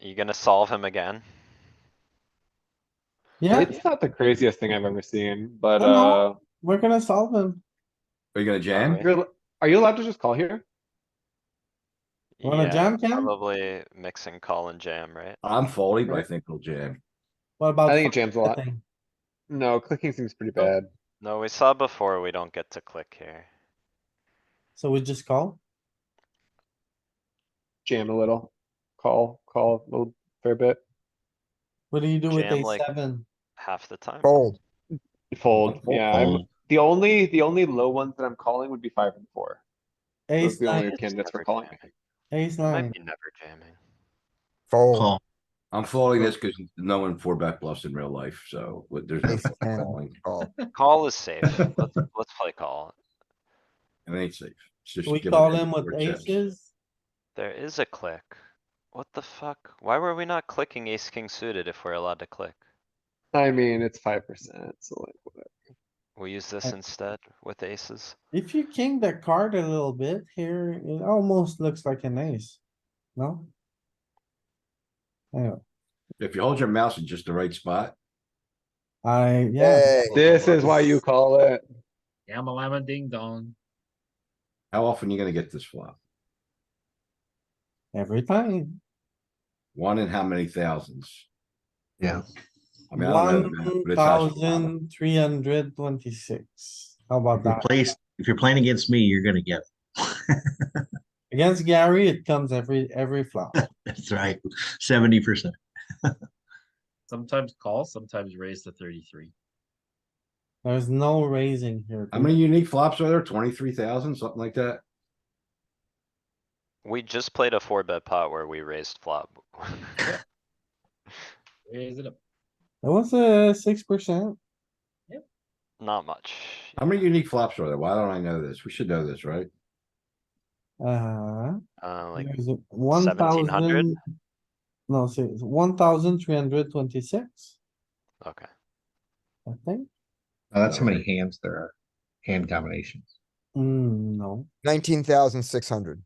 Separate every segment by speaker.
Speaker 1: You gonna solve him again?
Speaker 2: Yeah, Oh,
Speaker 3: It's not the craziest thing I've ever seen, but,
Speaker 2: I know.
Speaker 3: uh,
Speaker 2: we're gonna solve him.
Speaker 4: Are you gonna jam?
Speaker 1: Alright.
Speaker 3: you're, are you allowed to just call here?
Speaker 2: Wanna
Speaker 1: Yeah,
Speaker 2: jam, Ken?
Speaker 1: Probably mixing call and jam, right?
Speaker 4: I'm folding, but I think we'll jam.
Speaker 2: What about?
Speaker 3: I think it jams a lot.
Speaker 2: thing?
Speaker 3: No, clicking seems pretty bad.
Speaker 1: No, we saw before, we don't get to click here.
Speaker 2: So we just call?
Speaker 3: Jam a little. Call, call a little fair bit.
Speaker 2: What do you do with
Speaker 1: Jam
Speaker 2: a
Speaker 1: like-
Speaker 2: seven?
Speaker 1: Half the time.
Speaker 5: Fold.
Speaker 3: Fold, yeah, I'm, the only, the only low ones that I'm calling would be five and four.
Speaker 2: Ace
Speaker 3: Those are the only
Speaker 2: nine,
Speaker 1: It's
Speaker 3: candidates we're
Speaker 1: never
Speaker 3: calling.
Speaker 1: jamming.
Speaker 2: ace nine.
Speaker 1: Might be never jamming.
Speaker 5: Fold.
Speaker 4: I'm folding this because no one four bet bluffs in real life, so what- there's no
Speaker 5: Ace
Speaker 4: point
Speaker 5: ten.
Speaker 4: calling.
Speaker 5: Call.
Speaker 1: Call is safe. Let's, let's play call.
Speaker 4: It ain't safe. It's just
Speaker 2: We
Speaker 4: giving
Speaker 2: call
Speaker 4: in
Speaker 2: him with
Speaker 4: four chips.
Speaker 2: aces.
Speaker 1: There is a click. What the fuck? Why were we not clicking ace king suited if we're allowed to click?
Speaker 3: I mean, it's five percent, so like, what-
Speaker 1: We'll use this instead with aces.
Speaker 2: If you king the card a little bit here, it almost looks like an ace. No? Anyway,
Speaker 4: If you hold your mouse in just the right spot,
Speaker 2: I, yeah,
Speaker 5: Yay.
Speaker 3: this is why you call it.
Speaker 6: Yama lama ding dong.
Speaker 4: how often you gonna get this flop?
Speaker 2: every time.
Speaker 4: One in how many thousands?
Speaker 5: Yeah.
Speaker 4: I mean, I don't know, the math, but
Speaker 2: One
Speaker 4: it's actually a lot.
Speaker 2: thousand three hundred twenty-six. How about
Speaker 7: If you're
Speaker 2: that?
Speaker 7: placed, if you're playing against me, you're gonna get. it.
Speaker 2: Against Gary, it comes every, every flop.
Speaker 7: That's right, seventy percent.
Speaker 6: Sometimes call, sometimes raise to thirty-three.
Speaker 2: There's no raising here.
Speaker 4: How many unique flops are there? Twenty-three thousand, something like that?
Speaker 1: We just played a four bet pot where we raised flop.
Speaker 6: Raise it up.
Speaker 2: It was a six percent.
Speaker 1: Not much.
Speaker 4: How many unique flops are there? Why don't I know this? We should know this, right?
Speaker 2: Uh,
Speaker 1: Uh, like
Speaker 2: there's one
Speaker 1: 1700?
Speaker 2: thousand. No, see, it's one thousand three hundred twenty-six,
Speaker 1: Okay,
Speaker 2: I think.
Speaker 4: that's how many
Speaker 7: hands there are, hand combinations.
Speaker 2: Hmm, no.
Speaker 5: Nineteen thousand six hundred.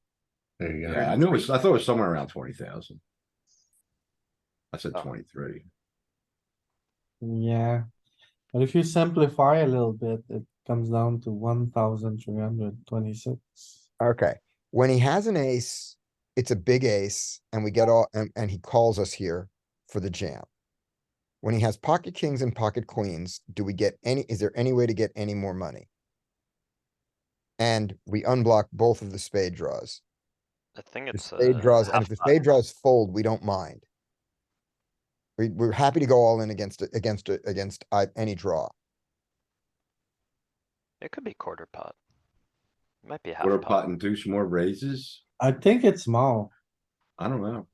Speaker 7: There you
Speaker 4: Yeah, I knew it was, I thought it was somewhere around twenty thousand. I said
Speaker 1: Oh.
Speaker 4: twenty-three.
Speaker 2: Yeah. But if you simplify a little bit, it comes down to one thousand three hundred twenty-six.
Speaker 5: Okay, when he has an ace, it's a big ace and we get all, and, and he calls us here for the jam. When he has pocket kings and pocket queens, do we get any, is there any way to get any more money? And we unblock both of the spade draws.
Speaker 1: I think
Speaker 5: The
Speaker 1: it's.
Speaker 5: spade
Speaker 1: uh,
Speaker 5: draws, and
Speaker 1: half
Speaker 5: if the
Speaker 1: pot.
Speaker 5: spade draws fold, we don't mind. We, we're happy to go all in against, a- against, a- against uh, any draw.
Speaker 1: It could be quarter pot. Might be
Speaker 4: Quarter
Speaker 1: half
Speaker 4: pot
Speaker 1: pot.
Speaker 4: and do some more raises?
Speaker 2: I think it's small.
Speaker 4: I don't know.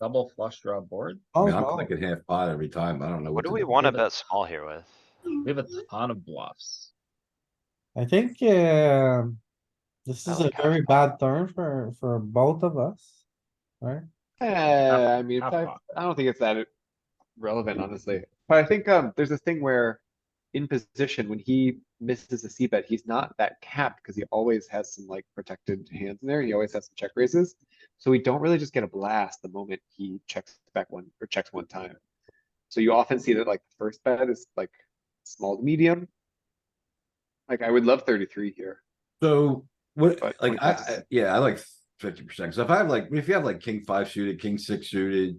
Speaker 6: Double flush draw board.
Speaker 4: I
Speaker 2: Oh,
Speaker 4: mean, I'm
Speaker 2: wow.
Speaker 4: clicking half pot every time. I don't know.
Speaker 1: What do
Speaker 4: to
Speaker 1: we wanna
Speaker 6: but-
Speaker 1: bet small here with?
Speaker 6: We have a ton of bluffs.
Speaker 2: I think, um this
Speaker 1: I
Speaker 2: is a
Speaker 1: like half
Speaker 2: very bad turn for, for both of us. Right?
Speaker 3: Eh, I mean,
Speaker 6: half
Speaker 3: five,
Speaker 6: pot.
Speaker 3: I don't think it's that relevant, honestly. But I think, um, there's this thing where in position, when he misses a C bet, he's not that capped because he always has some like protected hands in there. He always has some check raises. So we don't really just get a blast the moment he checks back one or checks one time. So you often see that like the first bet is like small to medium. Like I would love thirty-three here.
Speaker 4: So, what,
Speaker 3: But
Speaker 4: like, I,
Speaker 3: 25%.
Speaker 4: I- yeah, I like fifty percent. So if I have like, if you have like king five suited, king six suited.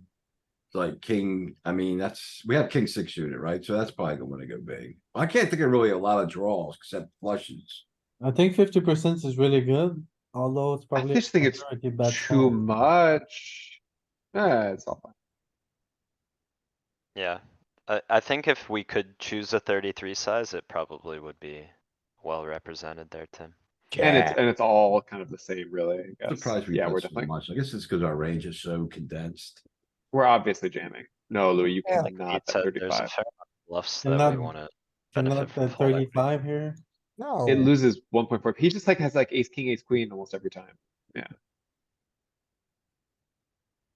Speaker 4: Like king, I mean, that's, we have king six suited, right? So that's probably gonna wanna go big. I can't think of really a lot of draws except flushes.
Speaker 2: I think fifty percent is really good, although it's probably.
Speaker 3: just think it's
Speaker 2: majority bet
Speaker 3: Too
Speaker 2: small.
Speaker 3: much. Ah, it's all fine.
Speaker 1: Yeah, I, I think if we could choose a thirty-three size, it probably would be well represented there, Tim.
Speaker 3: And it's, and it's all kind of the same, really, I guess.
Speaker 4: Surprised we
Speaker 3: Yeah, we're
Speaker 4: bet so
Speaker 3: definitely,
Speaker 4: much. I guess it's because our range is so condensed.
Speaker 3: we're obviously jamming. No, Louis, you
Speaker 5: Yeah.
Speaker 1: Like
Speaker 3: cannot
Speaker 1: Pete said,
Speaker 3: bet
Speaker 1: there's a
Speaker 3: thirty-five.
Speaker 1: fair amount of Bluffs
Speaker 2: And
Speaker 1: that we
Speaker 2: that-
Speaker 1: wanna
Speaker 2: And
Speaker 1: benefit
Speaker 2: not
Speaker 1: from.
Speaker 2: the
Speaker 1: full equity.
Speaker 2: thirty-five here.
Speaker 5: No.
Speaker 3: It loses one point four. He just like has like ace, king, ace, queen almost every time.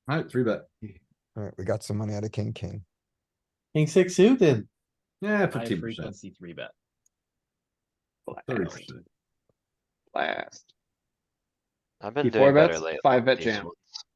Speaker 4: Alright, three bet.
Speaker 5: Alright, we got some money out of king, king.
Speaker 2: King six suited.
Speaker 4: Yeah,
Speaker 6: High
Speaker 4: fifteen percent,
Speaker 6: frequency three bet.
Speaker 4: thirty
Speaker 3: Blast,
Speaker 4: percent.
Speaker 3: Blast.
Speaker 1: I've been
Speaker 3: He four
Speaker 1: doing better
Speaker 3: bets,
Speaker 1: lately.
Speaker 3: five bet
Speaker 1: these
Speaker 3: jam.
Speaker 1: ones.